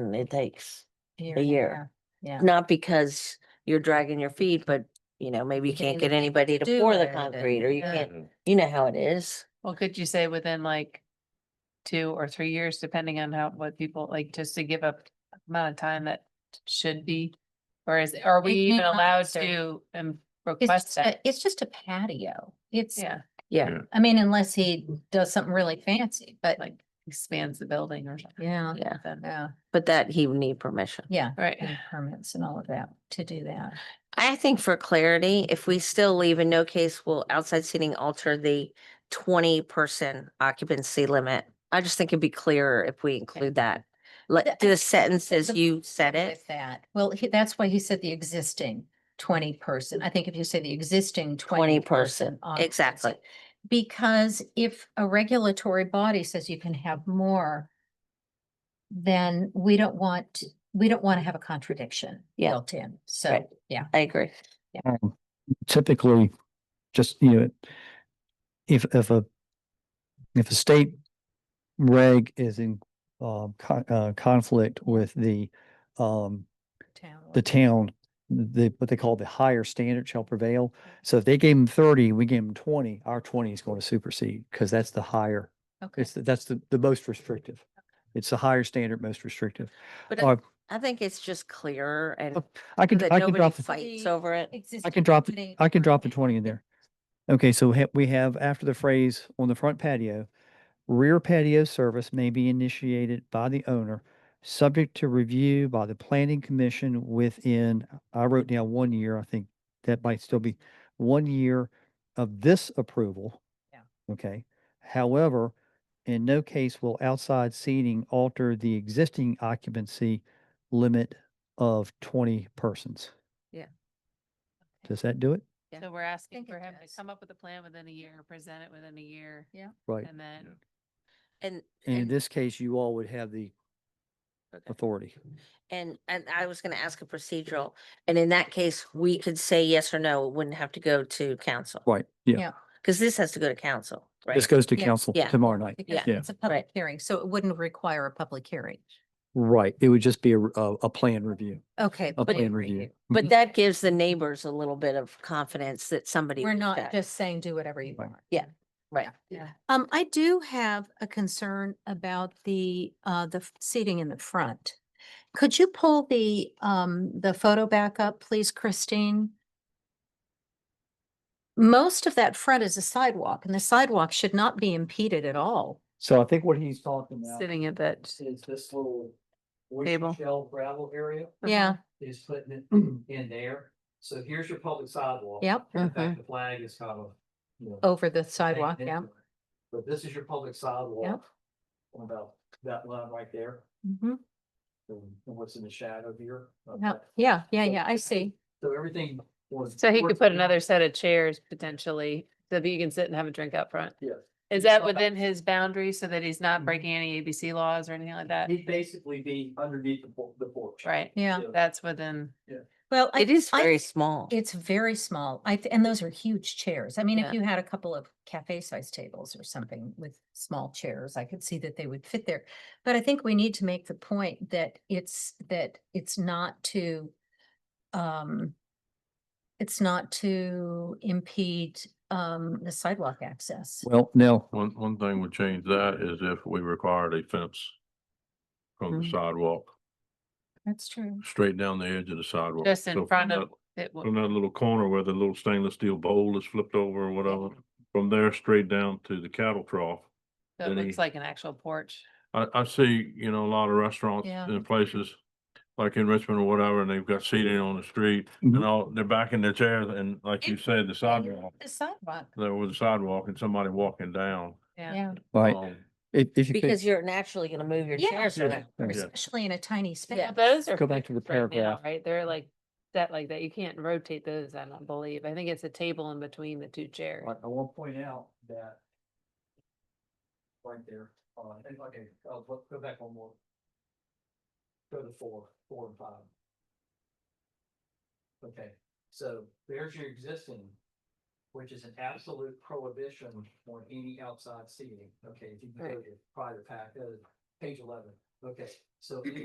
and it takes, year. A and year. half. Yeah. not because you're dragging your feet, but you know, maybe you Getting can't get the people anybody to to do pour it the and- concrete or you yeah. can't, you know how it is. Well, could you say within like two or three years, depending on how, what people, like, just to give up amount of time that should be? Or is, are we It may even not allowed serve. to um, It's, request a- that? it's just a patio. It's, Yeah, I mean, unless he does something really fancy, but like expands the building or something. yeah, Yeah, then. yeah, but that he would need permission. yeah. Right, and Permits and all of that to do that. I think for clarity, if we still leave in no case will outside seating alter the twenty person occupancy limit. I just think it'd be clearer if we include that. The- I Like the think sentence as the you said it. With that, well, he- that's why he said the existing twenty person. I think if you say the existing 20 twenty person, person. occupancy, exactly. Because if a regulatory body says you can have more, then we don't want, we don't want to have a contradiction Yeah. built in. So, Right. yeah. I agree. um, typically just, you know, if, if a, if a state reg is in, um, con- uh, conflict with the, um, town the town, the, what they call the higher standard shall prevail. So if they gave them thirty, we gave them twenty, our twenty is going to supersede because that's the higher, Okay. it's, the- that's the, the most restrictive. It's the higher standard, most restrictive. But I- Or I think it's just clearer and Oh, I can, that I can nobody drop, the- fights over it. I can drop, I can drop the twenty in there. Okay, so we ha- we have after the phrase on the front patio, rear patio service may be initiated by the owner, subject to review by the planning commission within, I wrote down one year, I think that might still be one year of this approval. Yeah. Okay, however, in no case will outside seating alter the existing occupancy limit of twenty persons. Yeah. Does that do it? Yeah. so we're asking think for it him to does. come up with a plan within a year, present it within a year, Right. and then. And, And in and, this case, you all would have the authority. and, and I was gonna ask a procedural, and in that case, we could say yes or no, it wouldn't have to go to council. Right, Yeah. Cause this has to go to council, This right? goes to Yeah. council Yeah. tomorrow night. Because Yeah. it's a public Right. hearing, so it wouldn't require a public hearing. Right, it would just be a, r- a, a plan review, Okay. a But- plan review. But Mhm. that gives the neighbors a little bit of confidence that somebody. We're looked not at it. just saying do whatever you Right. want. Yeah, right. Yeah. Um, I do have a concern about the, uh, the f- seating in the front. Could you pull the, um, the photo back up, please, Christine? Most of that front is a sidewalk and the sidewalk should not be impeded at all. So I think what he's talking about Sitting at that. is this little oyster Table. shell gravel area Yeah, is putting it in there. So here's your public sidewalk. yep, In fact, the flag is kind of, you know. over the hanging sidewalk, into yeah. it. But this is your public sidewalk. on About that line right there, Mhm. and and what's in the shadow here. of Yeah, that. yeah, yeah, So- yeah, I see. So everything was. So he could works put in- another set of chairs potentially, so that you can sit and have a drink out front. Yes. Is Yeah. that within his boundary so that he's not Mhm. breaking any ABC laws or anything like that? He'd basically be underneath the por- the porch. Right, Yeah, that's within, well, I- It is I- very small. It's very small. I, th- and those are huge chairs. I mean, Yeah. if you had a couple of cafe sized tables or something with small chairs, I could see that they would fit there. But I think we need to make the point that it's, that it's not to, um, it's not to impede, um, the sidewalk access. Well, no, One, one thing would change that is if we required a fence from the Mhm. sidewalk, That's true. straight down the edge of the sidewalk. just So in from front of that- it. wa- From that little corner where the little stainless steel bowl is flipped over or whatever, from there straight down to the cattle trough. so It Then he- looks like an actual porch. I, I see, you know, a lot of restaurants Yeah. and places, like in Richmond or whatever, and they've got seating on the street Mhm. and all, they're back in their chairs and like you said, the sidewalk, The sidewalk, there was a sidewalk and somebody walking down. Yeah, yeah. right, um, if, if you Because could, you're naturally gonna move your Yeah. chairs Yeah. around. Yeah. Especially in a tiny space. Now, those are. Go back to the fixed right now, paragraph. Right, they're like, that like that, you can't rotate those, I don't believe. I think it's a table in between the two chairs. I will point out that right there, uh, and okay, uh, go go back one more. Go to four, four and five. Okay, so there's your existing, which is an absolute prohibition on any outside seating. Okay, if you can go to your prior pack, uh, page eleven. Okay, so any